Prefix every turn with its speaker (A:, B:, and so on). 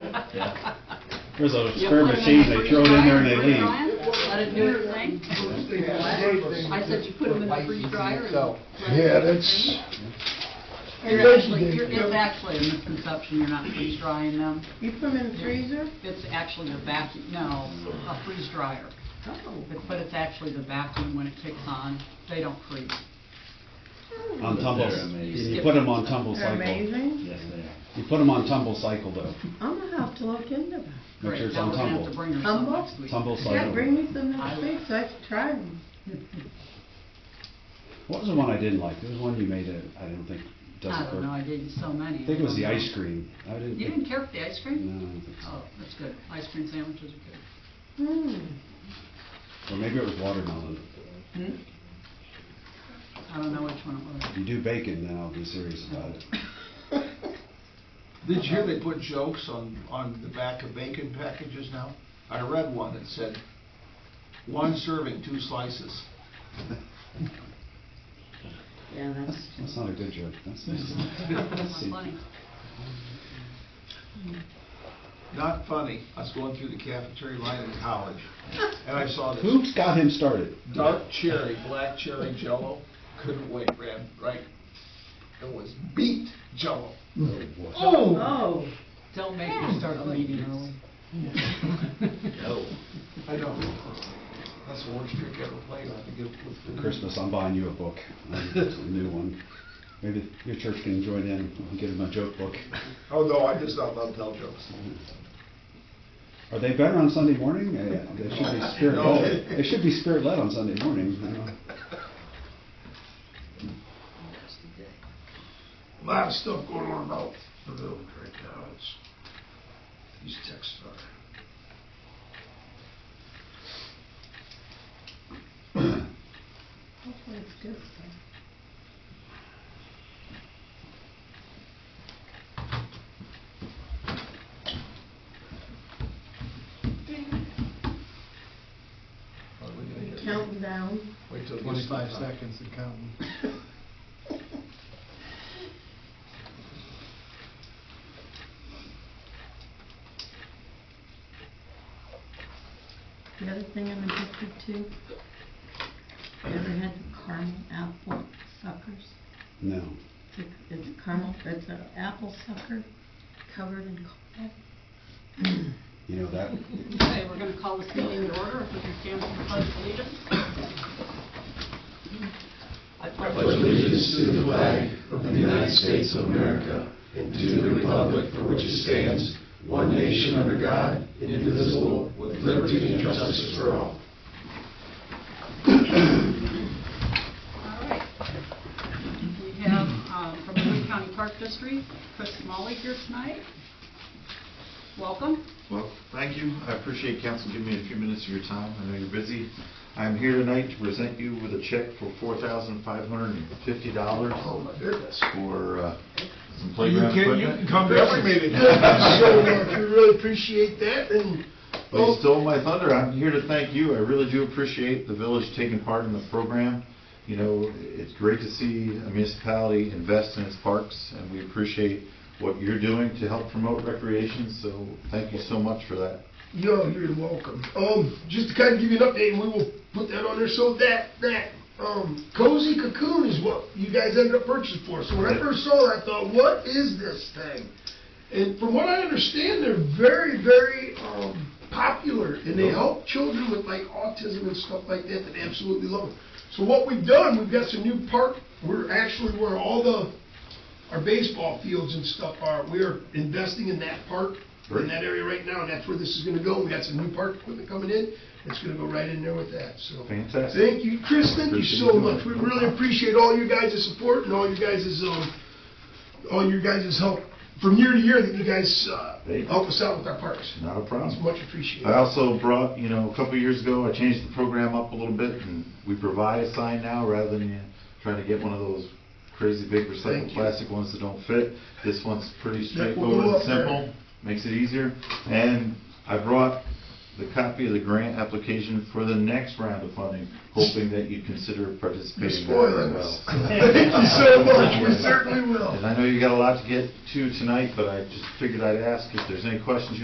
A: Yeah.
B: There's a
C: You
B: spare
C: put 'em in
B: machine,
C: the
B: they
C: freeze
B: throw it in there and they
C: dryer, put it
B: leave.
C: on, Let it do its thing. I said you put them in the freeze dryer and. let it do
D: Yeah,
C: its
D: that's,
C: thing. You're actually, you're- it's actually a misconception, you're not freeze drying them.
E: You put them in the freezer?
C: It's actually the vacuum, no, a freeze dryer.
E: Oh.
C: But- But it's actually the vacuum when it kicks on, they don't freeze.
B: On
A: But
B: tumble,
A: they're amazing.
B: you put them on tumble
E: They're
B: cycle.
E: amazing.
A: Yes, they are.
B: You put them on tumble cycle though.
E: I'm gonna have to look into that.
B: Make sure
C: Great,
B: it's
C: now
B: on
C: we're gonna have to
B: tumble.
C: bring her some
E: Tumble?
C: next week.
B: Tumble
E: Yeah, bring
B: cycle.
E: me some next week so I can try them.
B: What was the one I didn't like? There was one you made that I didn't think
C: I
B: doesn't
C: don't know,
B: work.
C: I gave you so many.
B: I think it was the
C: don't
B: ice
C: know.
B: cream. I didn't
C: You
B: think,
C: didn't care for the ice
B: no, I
C: cream?
B: don't think
C: Oh, that's good, ice cream sandwiches are
E: Hmm.
B: so. Or maybe it was watermelon.
C: good. Hmm? I don't know which one it was.
B: You do bacon, then I'll be serious about it.
F: Did you hear they put jokes on, on the back of bacon packages now? I read one that said, one serving, two slices.
E: Yeah,
B: That's, that's not a good joke. That's,
C: That's funny.
F: Not funny, I was going through the cafeteria line in college, and I saw this
B: who's got him started?
F: dark cherry, black cherry jello, couldn't wait, ran right. It was beet jello. Oh!
E: Oh,
C: Don't make me start the meeting early.
A: No.
F: I know. That's the worst trick I ever played, I think it was.
B: For Christmas, I'm buying you a book, a new one. Maybe your church can join in and get him a joke book.
F: Oh, no, I just don't love tell jokes.
B: Are they better on Sunday morning? Uh, They should be spirit led.
F: No.
B: They should be spirit led on Sunday morning. you know.
F: Lot of stuff going on about the village right now, it's, these texts are.
E: hopefully it's good stuff.
F: Are we gonna get-
E: Counting down.
F: Wait till. it gets
G: Twenty-five
F: to-
G: seconds and counting.
E: The other thing I'm addicted to, you ever had caramel apple suckers?
B: No.
E: It's a- It's caramel, it's an apple sucker covered in caramel.
B: You know that?
C: Okay, we're gonna call this meeting to order, if we can stand for the pledge of allegiance. I pledge
A: Pledge allegiance to the flag of the United States of America and to the republic for which it stands, one nation under God, indivisible, with liberty and justice for all.
C: All right. We have, um, from the Lee County Park District, Chris Smalley here tonight. Welcome.
H: Well, thank you. I appreciate council giving me a few minutes of your time. I know you're busy. I'm here tonight to present you with a check for four thousand five hundred and fifty dollars
F: Oh, my goodness.
H: for uh, some
F: You
H: playground
F: can, you can
H: equipment.
F: come to every meeting. Sure, we really appreciate that, and.
H: They stole my thunder. I'm here to thank you. I really do appreciate the village taking part in the program. You know, it's great to see a municipality invest in its parks, and we appreciate what you're doing to help promote recreation, so thank you so much for that.
F: No, you're welcome. Um, just to kind of give you an update, and we will put that on there, so that, that, um, cozy cocoon is what you guys ended up purchasing for. So when I first saw it, I thought, what is this thing? And from what I understand, they're very, very, um, popular, and they help children with like autism and stuff like that, that they absolutely love it. So what we've done, we've got some new park, we're actually where all the, our baseball fields and stuff are, we're investing in that park, in that area right now, and that's where this is gonna go. We got some new park equipment coming in, it's gonna go right in there with that, so.
H: Fantastic.
F: Thank you, Chris, thank you so much. We really appreciate all you guys' support and all you guys' um, all your guys' help from year to year that you guys, uh,
H: Hey.
F: help us out with our parks.
H: Not a problem.
F: It's much
H: I
F: appreciated.
H: also brought, you know, a couple of years ago, I changed the program up a little bit, and we provide a sign now rather than you trying to get one of those crazy big
F: Thank
H: recycled
F: you.
H: plastic ones that don't fit. This one's pretty
F: That will
H: straightforward
F: go
H: and
F: up there.
H: simple, makes it easier. And I brought the copy of the grant application for the next round of funding, hoping that you'd consider
F: You're
H: participating. in that
F: spoiling
H: as
F: us.
H: well.
F: Thank you so much, we certainly will.
H: And I know you got a lot to get to tonight, but I just figured I'd ask if there's any questions you